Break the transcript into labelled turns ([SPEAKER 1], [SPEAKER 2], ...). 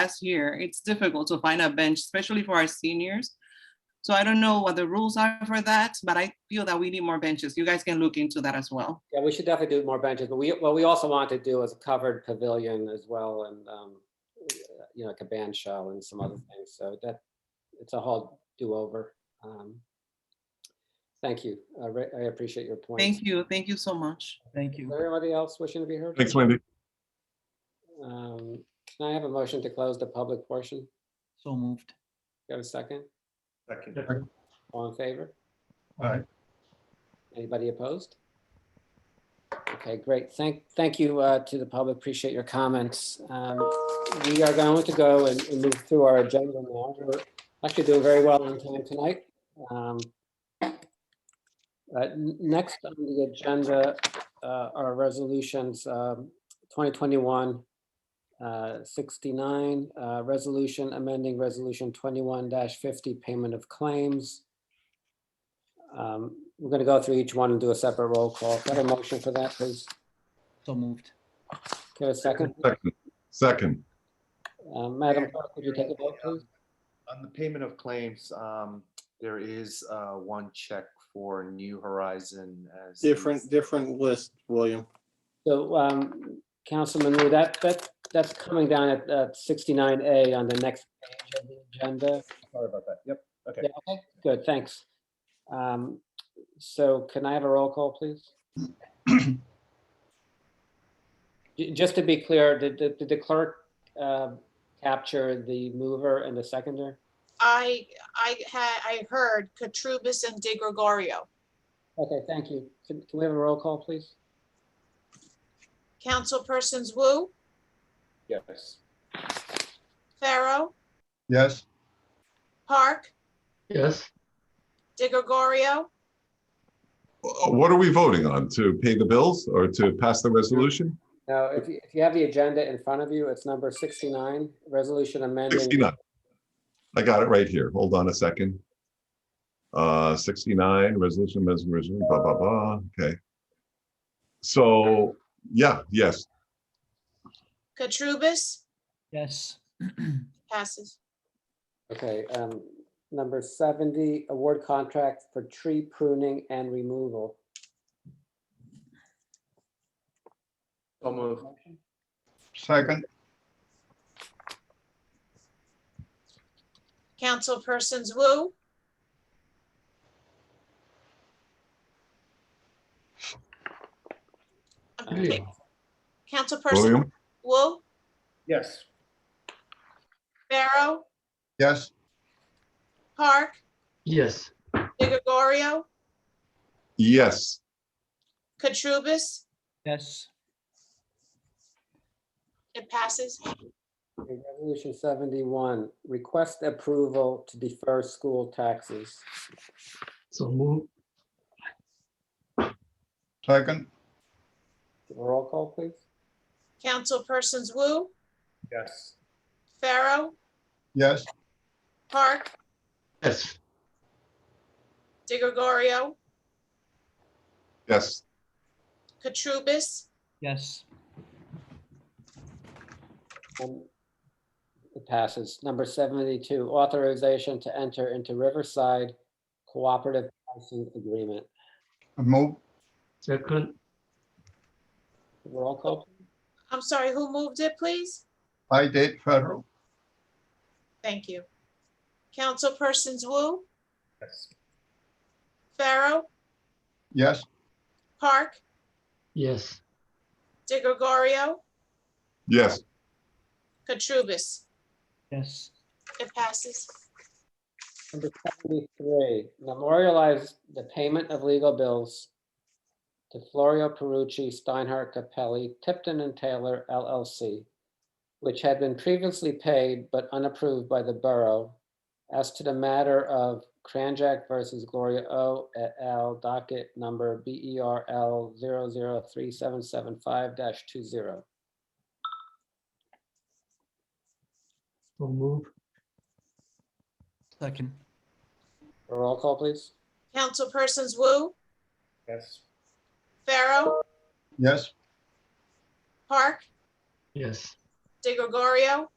[SPEAKER 1] last year, it's difficult to find a bench, especially for our seniors. So I don't know what the rules are for that, but I feel that we need more benches. You guys can look into that as well.
[SPEAKER 2] Yeah, we should definitely do more benches, but we, what we also want to do is a covered pavilion as well and, um, you know, like a band show and some other things. So that, it's a whole do-over. Um, Thank you. I re- I appreciate your point.
[SPEAKER 1] Thank you, thank you so much.
[SPEAKER 3] Thank you.
[SPEAKER 2] Is there anybody else wishing to be heard?
[SPEAKER 4] Thanks, Wendy.
[SPEAKER 2] Um, Can I have a motion to close the public portion?
[SPEAKER 3] So moved.
[SPEAKER 2] Got a second?
[SPEAKER 4] Second.
[SPEAKER 2] All in favor?
[SPEAKER 4] Aye.
[SPEAKER 2] Anybody opposed? Okay, great. Thank, thank you uh, to the public. Appreciate your comments. Um, We are going to go and and move through our agenda now. We're actually doing very well on time tonight. Um, uh, n- Next on the agenda uh, are resolutions um, 2021 uh, 69, uh, resolution amending resolution 21-50 payment of claims. Um, We're going to go through each one and do a separate roll call. Got a motion for that, please?
[SPEAKER 3] So moved.
[SPEAKER 2] Get a second?
[SPEAKER 4] Second. Second.
[SPEAKER 2] Uh, Madam Clerk, could you take a vote, please?
[SPEAKER 5] On the payment of claims, um, there is, uh, one check for New Horizon as. the-
[SPEAKER 6] Different, different list, William.
[SPEAKER 2] So, um, Councilman Wu, that, that, that's coming down at uh, 69A on the next page of the agenda.
[SPEAKER 5] Sorry about that. Yep.
[SPEAKER 2] Yeah, okay, good, thanks. Um, So can I have a roll call, please? Ju- Just to be clear, did- did did the clerk uh, capture the mover and the seconder?
[SPEAKER 7] I, I had, I heard Katrubis and De Gregorio.
[SPEAKER 2] Okay, thank you. Can can we have a roll call, please?
[SPEAKER 7] Councilpersons Wu,
[SPEAKER 5] Yes.
[SPEAKER 7] Pharaoh,
[SPEAKER 4] Yes.
[SPEAKER 7] Park. Yes. De Gregorio,
[SPEAKER 4] Uh, What are we voting on? To pay the bills or to pass the resolution?
[SPEAKER 2] Now, if you if you have the agenda in front of you, it's number 69, resolution amending.
[SPEAKER 4] 69. I got it right here. Hold on a second. Uh, 69, resolution, resolution, blah, blah, blah. Okay. So, yeah, yes,
[SPEAKER 7] Katrubis,
[SPEAKER 3] Yes.
[SPEAKER 7] passes.
[SPEAKER 2] Okay, um, number 70, award contract for tree pruning and removal.
[SPEAKER 5] So moved.
[SPEAKER 7] Councilpersons Wu,
[SPEAKER 2] Uh,
[SPEAKER 7] Councilperson
[SPEAKER 4] William?
[SPEAKER 7] Wu,
[SPEAKER 5] Yes.
[SPEAKER 7] Pharaoh,
[SPEAKER 4] Yes.
[SPEAKER 7] Park. Yes. De Gregorio,
[SPEAKER 4] Yes.
[SPEAKER 7] Katrubis,
[SPEAKER 3] Yes.
[SPEAKER 7] it passes.
[SPEAKER 2] Okay, Resolution 71, request approval to defer school taxes.
[SPEAKER 4] Second.
[SPEAKER 2] Roll call, please.
[SPEAKER 7] Councilpersons Wu,
[SPEAKER 5] Yes.
[SPEAKER 7] Pharaoh,
[SPEAKER 4] Yes.
[SPEAKER 7] Park,
[SPEAKER 6] Yes.
[SPEAKER 7] De Gregorio,
[SPEAKER 4] Yes.
[SPEAKER 7] Katrubis,
[SPEAKER 3] Yes.
[SPEAKER 2] Um, It passes. Number 72, authorization to enter into Riverside Cooperative Housing Agreement.
[SPEAKER 4] Move.
[SPEAKER 6] Second.
[SPEAKER 2] Roll call. please.
[SPEAKER 7] I'm sorry, who moved it, please?
[SPEAKER 4] I did federal.
[SPEAKER 7] Thank you. Councilpersons Wu,
[SPEAKER 5] Yes.
[SPEAKER 7] Pharaoh,
[SPEAKER 4] Yes.
[SPEAKER 7] Park,
[SPEAKER 6] Yes.
[SPEAKER 7] De Gregorio,
[SPEAKER 4] Yes.
[SPEAKER 7] Katrubis.
[SPEAKER 3] Yes.
[SPEAKER 7] It passes.
[SPEAKER 2] Number 73, memorialize the payment of legal bills to Florio Perucci, Steinhardt, Capelli, Tipton and Taylor LLC, which had been previously paid but unapproved by the borough as to the matter of Cranjack versus Gloria O et al. docket number E BERL 003775-20.
[SPEAKER 6] So move.
[SPEAKER 3] Second.
[SPEAKER 2] Roll call, please.
[SPEAKER 7] Councilpersons Wu,
[SPEAKER 5] Yes.
[SPEAKER 7] Pharaoh,
[SPEAKER 4] Yes.
[SPEAKER 7] Park,
[SPEAKER 6] Yes.
[SPEAKER 7] De Gregorio,